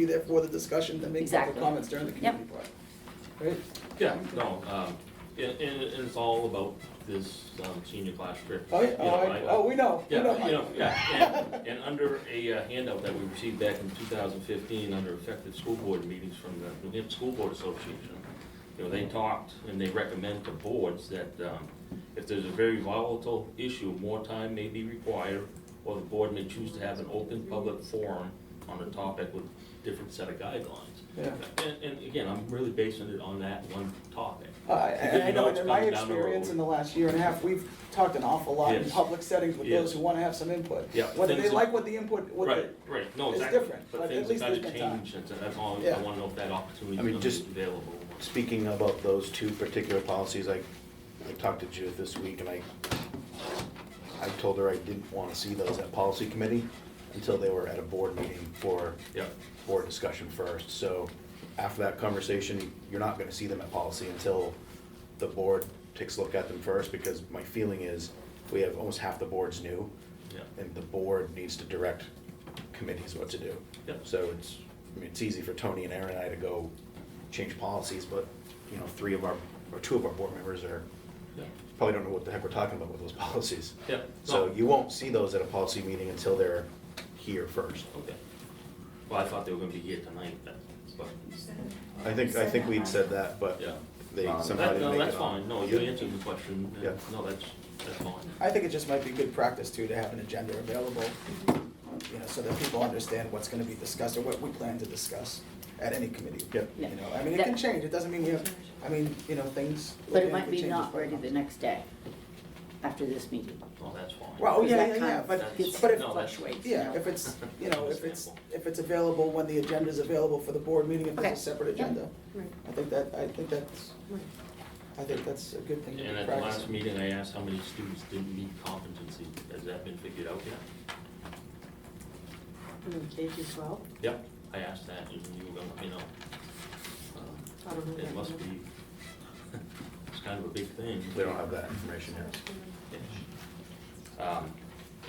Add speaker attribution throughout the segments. Speaker 1: be there for the discussion and make
Speaker 2: Exactly.
Speaker 1: public comments during the
Speaker 2: Yep.
Speaker 1: community part. Right?
Speaker 3: Yeah, no, um, and, and and it's all about this, um, senior class trip.
Speaker 1: Oh, yeah,
Speaker 3: You
Speaker 1: oh,
Speaker 3: know,
Speaker 1: I, oh, we know, we
Speaker 3: Yeah,
Speaker 1: know.
Speaker 3: you know, yeah, and, and under a uh, handout that we received back in two thousand fifteen, under effective school board meetings from the New Hampshire School Board Association, you know, they talked and they recommend to boards that, um, if there's a very volatile issue, more time may be required, or the board may choose to have an open public forum on a topic with different set of guidelines.
Speaker 1: Yeah.
Speaker 3: And, and again, I'm really basing it on that one topic.
Speaker 1: I, I- I
Speaker 3: You
Speaker 1: know, and
Speaker 3: know it's
Speaker 1: in my
Speaker 3: coming down the road.
Speaker 1: experience in the last year and a half, we've talked an awful lot in
Speaker 3: Yes.
Speaker 1: public settings with those
Speaker 3: Yes.
Speaker 1: who wanna have some input.
Speaker 3: Yeah,
Speaker 1: Whether they
Speaker 3: things that-
Speaker 1: like what the input, what
Speaker 3: Right,
Speaker 1: the,
Speaker 3: right, no,
Speaker 1: it's
Speaker 3: exactly.
Speaker 1: different, but at least
Speaker 3: things have
Speaker 1: there's
Speaker 3: gotta
Speaker 1: been time.
Speaker 3: change, and so that's all,
Speaker 1: Yeah.
Speaker 3: I wanna know if that
Speaker 4: I mean,
Speaker 3: opportunity is
Speaker 4: just-
Speaker 3: gonna be available.
Speaker 4: Speaking about those two particular policies, I, I talked to Judith this week and I, I told her I didn't want to see those at policy committee until they were at a board meeting for
Speaker 3: Yeah,
Speaker 4: board discussion first. So after that conversation, you're not gonna see them at policy until the board takes a look at them first, because my feeling is, we have almost half the boards new,
Speaker 3: yeah,
Speaker 4: and the board needs to direct committees what to do.
Speaker 3: Yeah.
Speaker 4: So it's, I mean, it's easy for Tony and Aaron and I to go change policies, but, you know, three of our, or two of our board members are,
Speaker 3: yeah,
Speaker 4: probably don't know what the heck we're talking about with those policies.
Speaker 3: yeah.
Speaker 4: So
Speaker 3: No,
Speaker 4: you won't see those at a policy meeting until they're here first.
Speaker 3: Okay. Well, I thought they were gonna be here tonight, but, but,
Speaker 4: I think, I think we'd said that, but
Speaker 3: yeah.
Speaker 4: they
Speaker 3: Um,
Speaker 4: somehow
Speaker 3: that-
Speaker 4: didn't
Speaker 3: No,
Speaker 4: make it
Speaker 3: that's
Speaker 4: on.
Speaker 3: fine, no, you answered the question, and-
Speaker 4: Yeah.
Speaker 3: no, that's, that's fine.
Speaker 1: I think it just might be good practice too, to have an agenda available, you know, so that people understand what's gonna be discussed or what we plan to discuss at any committee.
Speaker 4: Yep.
Speaker 1: You
Speaker 2: Yeah.
Speaker 1: know, I mean, it can
Speaker 2: That-
Speaker 1: change, it doesn't mean we have, I mean, you know, things.
Speaker 2: But it
Speaker 1: organically
Speaker 2: might be
Speaker 1: change
Speaker 2: not
Speaker 1: by
Speaker 2: ready the
Speaker 1: month.
Speaker 2: next day, after this meeting.
Speaker 3: No, that's fine.
Speaker 1: Well, oh,
Speaker 2: Because
Speaker 1: yeah,
Speaker 2: that
Speaker 1: yeah,
Speaker 2: kind
Speaker 1: yeah,
Speaker 2: of
Speaker 1: but,
Speaker 2: gets-
Speaker 1: but if,
Speaker 3: No, that's-
Speaker 2: fluctuates, you
Speaker 1: yeah,
Speaker 2: know.
Speaker 1: if it's, you know, if it's,
Speaker 3: Understandable.
Speaker 1: if it's available when the agenda's available for the board meeting, if there's
Speaker 2: Okay.
Speaker 1: a separate
Speaker 2: Yeah.
Speaker 1: agenda.
Speaker 5: Right,
Speaker 1: I think that, I think that's,
Speaker 5: right.
Speaker 1: I think that's a good thing to
Speaker 3: And
Speaker 1: be
Speaker 3: at the last
Speaker 1: practicing.
Speaker 3: meeting, I asked how many students didn't meet competency, has that been figured out yet?
Speaker 5: And then Hmm, K through twelve,
Speaker 3: Yep. I asked that, and you were gonna, you know, um,
Speaker 5: I don't know.
Speaker 3: It must be, it's kind of a big thing.
Speaker 4: They don't have that information here.
Speaker 3: Um,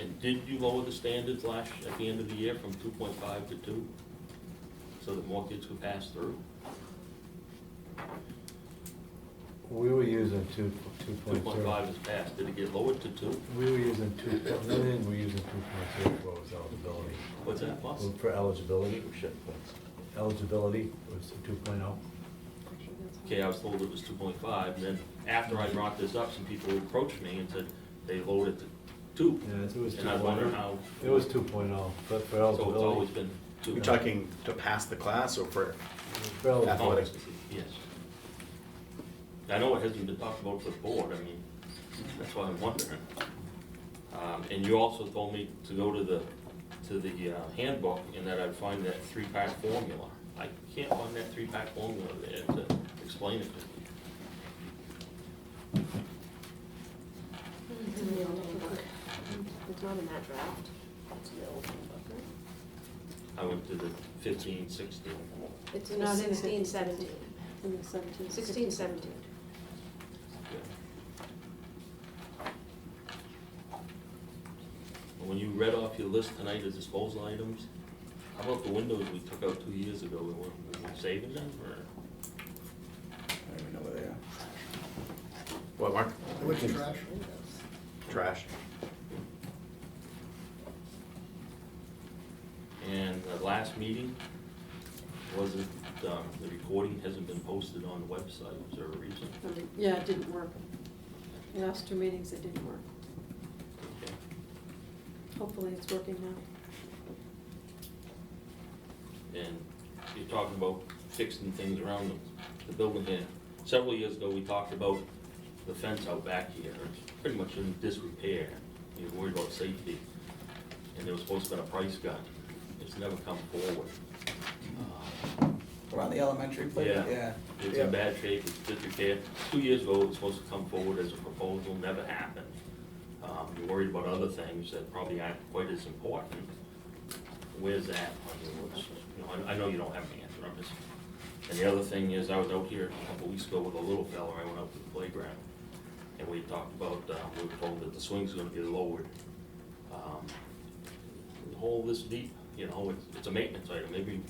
Speaker 3: And did you lower the standards last, at the end of the year from two point five to two? So that more kids could pass through?
Speaker 6: We were using two, two
Speaker 3: Two
Speaker 6: point
Speaker 3: point five
Speaker 6: two.
Speaker 3: is passed, did it get lowered to two?
Speaker 6: We were using two, the only thing we were using two point two for was eligibility.
Speaker 3: What's that, Oh, boss?
Speaker 6: For eligibility, eligibility was two point oh.
Speaker 3: Okay, I was told it was two point five, and then after I brought this up, some people approached me and said they lowered it to two.
Speaker 6: Yeah, it was two
Speaker 3: And I wonder
Speaker 6: point
Speaker 3: how.
Speaker 6: oh. It was two point oh, but for
Speaker 3: So it's always
Speaker 6: eligibility,
Speaker 3: been two.
Speaker 4: You're talking to pass the class or for,
Speaker 6: for
Speaker 3: Oh,
Speaker 6: eligibility,
Speaker 4: athletics.
Speaker 3: Yes. I know it hasn't been talked about with the board, I mean, that's why I'm wondering. Um, and you also told me to go to the, to the uh, handbook and that I'd find that three-pack formula. I can't find that three-pack formula there to explain it to me.
Speaker 5: It's in the old handbook. It's not in that draft. It's in the old handbook, right?
Speaker 3: I went to the fifteen, sixteen.
Speaker 5: It's
Speaker 7: in
Speaker 5: not
Speaker 7: the
Speaker 5: in the
Speaker 7: 16,
Speaker 5: sixteen, seventeen.
Speaker 7: 17.
Speaker 5: Sixteen, seventeen.
Speaker 3: yeah. And When you read off your list tonight of disposal items, how about the windows we took out two years ago? We weren't, we were saving them or?
Speaker 1: I don't even know where they are.
Speaker 4: what, Mark?
Speaker 8: Which trash?
Speaker 4: Trash.
Speaker 3: And the last meeting wasn't, um, the recording hasn't been posted on the website, is there a reason?
Speaker 7: Um, Yeah, it didn't work. Last two meetings, it didn't work.
Speaker 3: Okay.
Speaker 7: Hopefully, it's working now.
Speaker 3: And you're talking about fixing things around the, the building here. Several years ago, we talked about the fence out back here, it's pretty much in disrepair. You're worried about safety. And there was supposed to be a price gun. It's never come forward. Uh,
Speaker 1: Around the elementary playground, yeah.
Speaker 3: Yeah. It's
Speaker 1: Yeah.
Speaker 3: in bad shape, it's disrepair. Two years ago, it was supposed to come forward as a proposal, never happened. Um, You're worried about other things that probably aren't quite as important. Where's that on your list? You know, I I know you don't have an answer on this. And the other thing is, I was out here a couple weeks ago with a little fella, I went out to the playground, and we talked about, uh, we were told that the swing's gonna be lowered. Um, the Hole this deep, you know, it's, it's a maintenance item, maybe